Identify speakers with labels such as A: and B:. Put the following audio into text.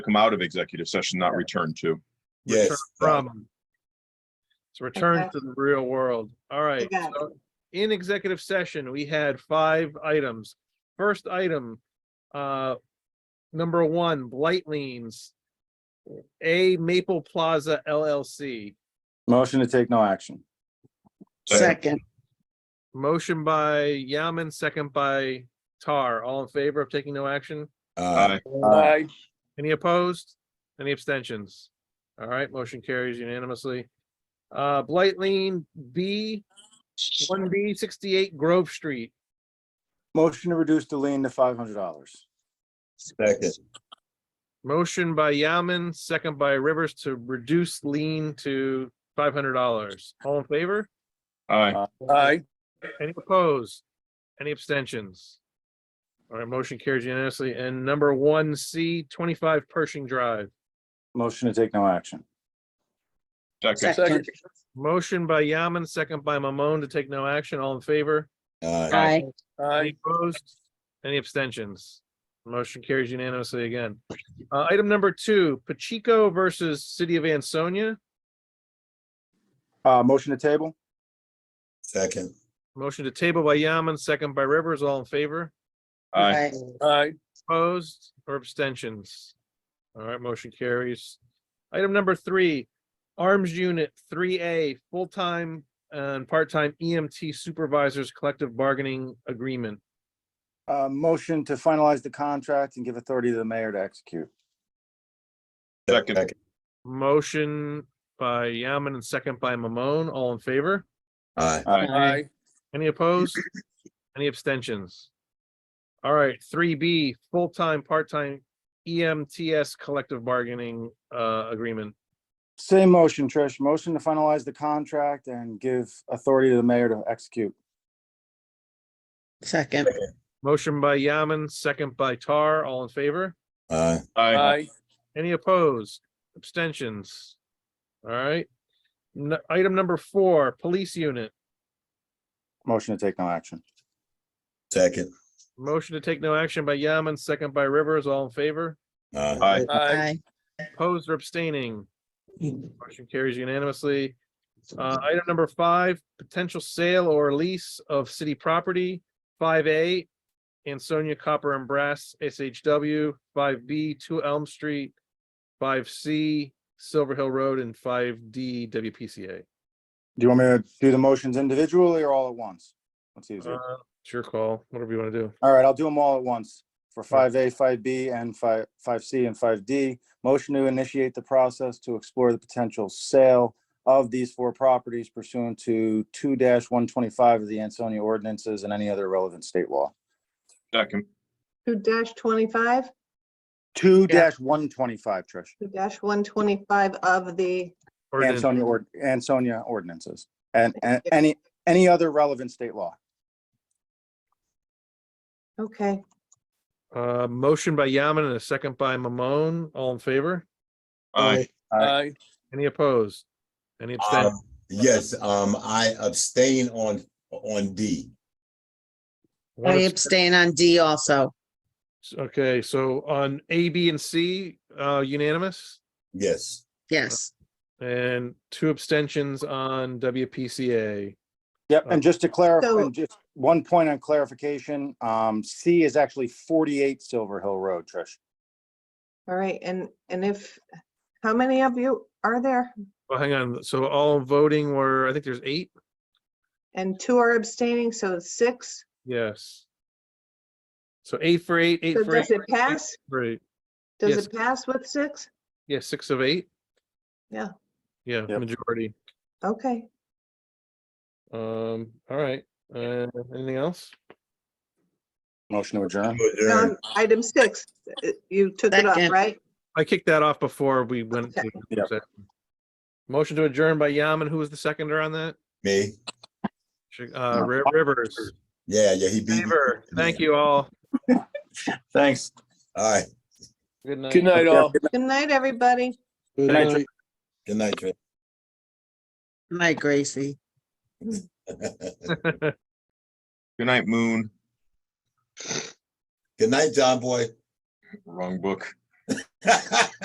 A: come out of executive session, not return to.
B: Yes,
C: Return
B: that-
C: From. It's
D: Okay.
C: return to the real world. All right.
D: got it.
C: so In executive session, we had five items. First item, uh, number one, blight liens. A Maple Plaza LLC,
E: Motion to take no action.
D: Second,
C: motion by Yaman, second by Tar. All in favor of taking no action?
B: uh,
A: Aye.
E: Aye.
C: Any opposed? Any abstentions? All right, motion carries unanimously. Uh, Blight Lane B, one B sixty-eight Grove Street.
E: Motion to reduce the lien to five hundred dollars.
B: second,
C: Motion by Yaman, second by Rivers to reduce lien to five hundred dollars. All in favor?
A: Aye,
E: Aye.
C: Any opposed? Any abstentions? All right, motion carries unanimously. And number one C, twenty-five Pershing Drive.
E: Motion to take no action.
A: second,
D: second,
C: Motion by Yaman, second by Mamon to take no action. All in favor?
B: uh,
D: aye,
C: Any opposed? Any abstentions? Motion carries unanimously again. Uh, item number two, Pacheco versus City of Ansonia.
E: Uh, motion to table?
B: second,
C: Motion to table by Yaman, second by Rivers, all in favor,
A: aye,
D: aye,
E: Aye.
C: opposed or abstentions? All right, motion carries. Item number three, Arms Unit three A, full-time and part-time EMT supervisors collective bargaining agreement.
E: Uh, motion to finalize the contract and give authority to the mayor to execute.
A: Second.
B: second,
C: Motion by Yaman and second by Mamon, all in favor?
B: aye,
D: Aye.
C: Any opposed? Any abstentions? All right, three B, full-time, part-time E EMTS collective bargaining uh agreement.
E: Same motion, Trish. Motion to finalize the contract and give authority to the mayor to execute.
D: second,
C: Motion by Yaman, second by Tar, all in favor?
B: aye,
A: aye,
C: Any opposed? Abstentions? All right. N- item number four, police unit.
E: Motion to take no action.
B: second,
C: Motion to take no action by Yaman, second by Rivers, all in favor?
B: aye,
A: aye,
D: aye,
C: Opposed or abstaining?
D: Mm.
C: Motion carries unanimously. Uh, item number five, potential sale or lease of city property, five A, Ansonia Copper and Brass, SHW, five B, Two Elm Street, five C, Silver Hill Road, and five D, WPCA.
E: Do you want me to do the motions individually or all at once? Let's see.
C: Uh, It's your call, whatever you want to do.
E: All right, I'll do them all at once for five A, five B, and five, five C and five D. Motion to initiate the process to explore the potential sale of these four properties pursuant to two one twenty-five of the Ansonia ordinances and any other relevant state law.
A: second,
F: Two dash twenty-five,
E: Two one twenty-five, Trish,
F: two dash one twenty-five of the,
C: Ordinance.
E: Ansonia ord, Ansonia ordinances and, and any, any other relevant state law.
F: okay,
C: Uh, motion by Yaman and a second by Mamone, all in favor?
A: aye,
E: Aye.
C: Any opposed? Any abstain?
B: Um, Yes, um, I abstain on, on D.
C: One
D: I
C: abst-
D: abstain on D also,
C: Okay, so on A, B, and C, uh, unanimous,
B: Yes,
D: yes,
C: and two abstentions on WPCA.
E: Yep, and just to
F: So-
E: clarify, just one point on clarification, um, C is actually forty-eight Silver Hill Road, Trish.
F: all right, and, and if, how many of you are there?
C: Well, hang on, so all voting were, I think there's eight?
F: And two are abstaining, so it's six,
C: Yes. So eight for eight, eight
F: so
C: for eight.
F: does it pass?
C: Right, yes.
F: Does it pass with six?
C: yeah, six of eight.
F: Yeah.
C: Yeah,
E: Yep.
C: majority.
F: Okay,
C: Um, all right, uh, anything else?
E: Motion to adjourn.
F: um, item six, uh, you took it off,
D: Second.
F: right?
C: I kicked that off before we went. to
F: Okay.
E: Yep.
C: session. Motion to adjourn by Yaman, who was the seconder on that?
B: me,
C: Sh- Uh, Ri- Rivers,
B: yeah, yeah, he beat. me.
C: favor, thank you all.
E: Thanks.
B: All right,
C: Good night.
G: Good night, all.
F: Good night, everybody.
E: Good night, Trish.
B: good night, Trey.
D: my Gracie.
A: good night, Moon,
B: Good night, John Boy.
A: wrong book.